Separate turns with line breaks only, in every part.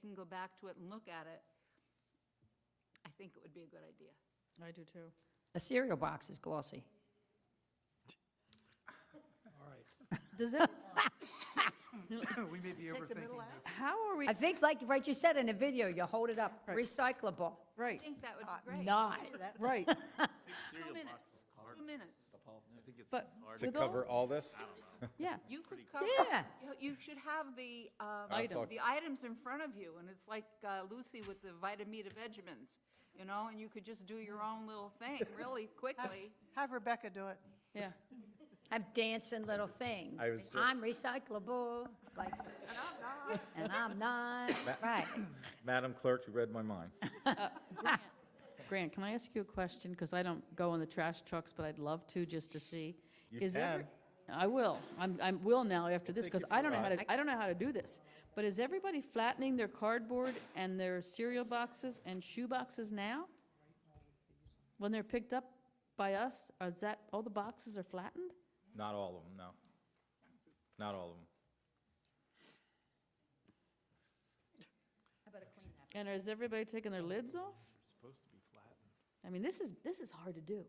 can go back to it and look at it, I think it would be a good idea.
I do too.
A cereal box is glossy.
All right.
Does that,
We may be
Take the middle
overthinking
out?
this.
how are we,
I think, like, right, you said in the video, you hold it up, recyclable.
I
right,
think that would be great.
Not.
right.
Two minutes, two minutes.
But
To
with all-
cover all this?
yeah,
You could cover,
Yeah.
you- you should have the, um,
I'll talk-
the items in front of you, and it's like uh, Lucy with the Vitamita Vegemins, you know, and you could just do your own little thing really quickly.
Have Rebecca do it.
yeah.
I'm dancing little things.
I was
I'm recyclable, like, and I'm not, right.
Madam Clerk, you read my mind.
Grant, can I ask you a question? Because I don't go on the trash trucks, but I'd love to, just to see.
You
Is every-
can.
I will. I'm, I will now after this,
take you
because
for
I
a
don't know how
ride.
to, I don't know how to do this. But is everybody flattening their cardboard and their cereal boxes and shoe boxes now? When they're picked up by us, are that, all the boxes are flattened?
Not all of them, no. Not all of them.
And is everybody taking their lids off? Supposed to be flattened. I mean, this is, this is hard to do,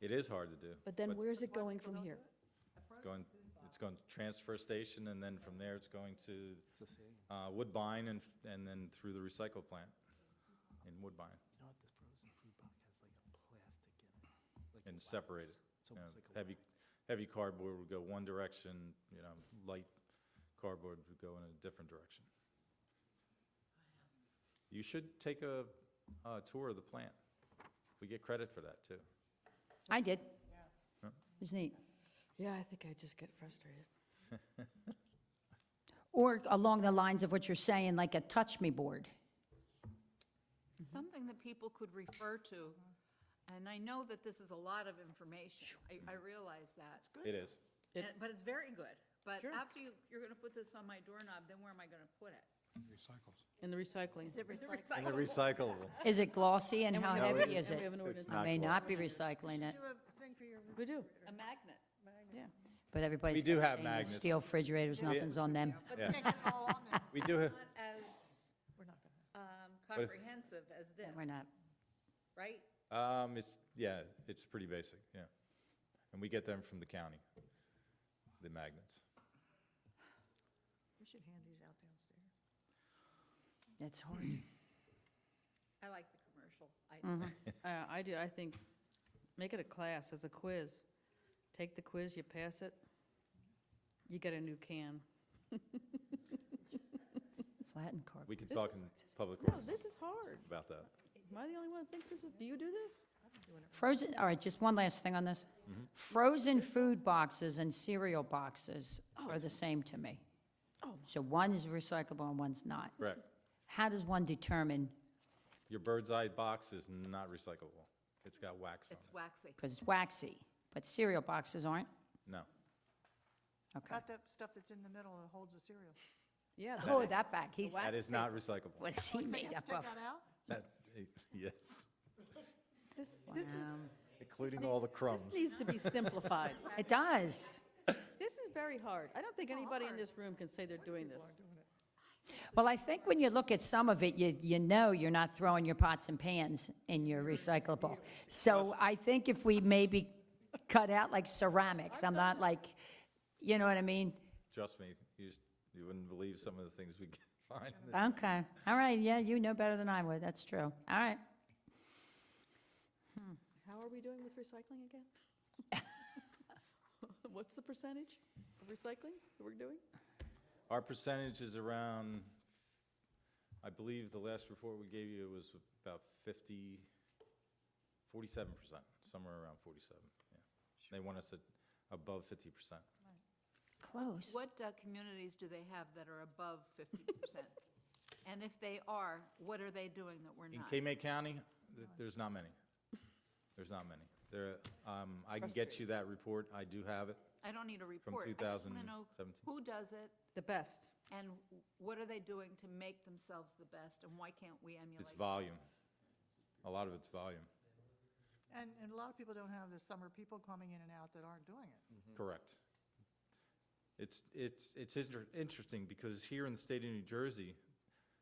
It is hard to do.
but then where's it going from here?
It's going, it's going to transfer station, and then from there, it's going to uh, Woodbine and, and then through the recycle plant in Woodbine and separate it. you know. Heavy, heavy cardboard would go one direction, you know, light cardboard would go in a different direction. You should take a, a tour of the plant. We get credit for that, too.
I did. It was neat.
Yeah, I think I just get frustrated.
Or along the lines of what you're saying, like a touch me board.
Something that people could refer to, and I know that this is a lot of information, I, I realize that.
It is.
And- But it's very good, but after you, you're gonna put this on my doorknob, then where am I gonna put it?
In the recycling?
And the recyclable.
Is it glossy and how
have-
heavy is
And we
it?
have an
It's
ordinance.
I
not
may
glossy.
not be recycling it,
Do a thing for your,
We do,
A magnet.
yeah.
but everybody's
do
got
have
stainless
magnets.
steel refrigerators, nothing's on them.
but
Yeah.
they can't get it all on there.
We do, ha-
Not as
We're not gonna.
um,
if-
comprehensive as this.
We're not.
Right?
um, it's, yeah, it's pretty basic, yeah. And we get them from the county, the magnets.
We should hand these out downstairs.
It's hard.
I like the commercial. I-
Uh, I do, I think, make it a class, it's a quiz. Take the quiz, you pass it, you get a new can.
Flattened cardboard.
We could talk in public
No,
works
this is hard.
about that.
Am I the only one that thinks this is, do you do this?
Frozen, all right, just one last thing on this. Frozen food boxes and cereal boxes are the same to me. So one is recyclable and one's not.
Correct.
How does one determine,
Your bird's eye box is not recyclable. It's got wax on
It's waxy.
because it's waxy, but cereal boxes aren't?
it. No.
Okay.
Not the stuff that's in the middle that holds the cereal.
Yeah.
Oh, that back, he's,
That is not recyclable.
what is
Oh,
he made up of?
out?
That- Yes,
This, this is,
including all the crumbs.
this needs to be simplified.
It does.
This is very hard. I don't think anybody in this room can say they're doing this.
Well, I think when you look at some of it, you, you know you're not throwing your pots and pans in your recyclable. So I think if we maybe cut out like ceramics, I'm not like, you know what I mean?
Trust me, you, s- you wouldn't believe some of the things we can find. in the-
Okay, all right, yeah, you know better than I would, that's true. All right,
How are we doing with recycling again? What's the percentage of recycling that we're doing?
Our percentage is around, I believe the last report we gave you was about 50, 47%, somewhere around 47, yeah. They want us at above 50%.
close.
What uh, communities do they have that are above 50%? And if they are, what are they doing that we're
In
not?
K-May County, th- there's not many. There's not many. There, um, I can get you that report, I do have it.
I don't need a report. I just want to know
2017.
who does it
The best.
and what are they doing to make themselves the best and why can't we emulate?
It's volume. A lot of it's volume,
And, and a lot of people don't have the summer people coming in and out that aren't doing it.
correct. It's, it's, it's inter- interesting, because here in the state of New Jersey,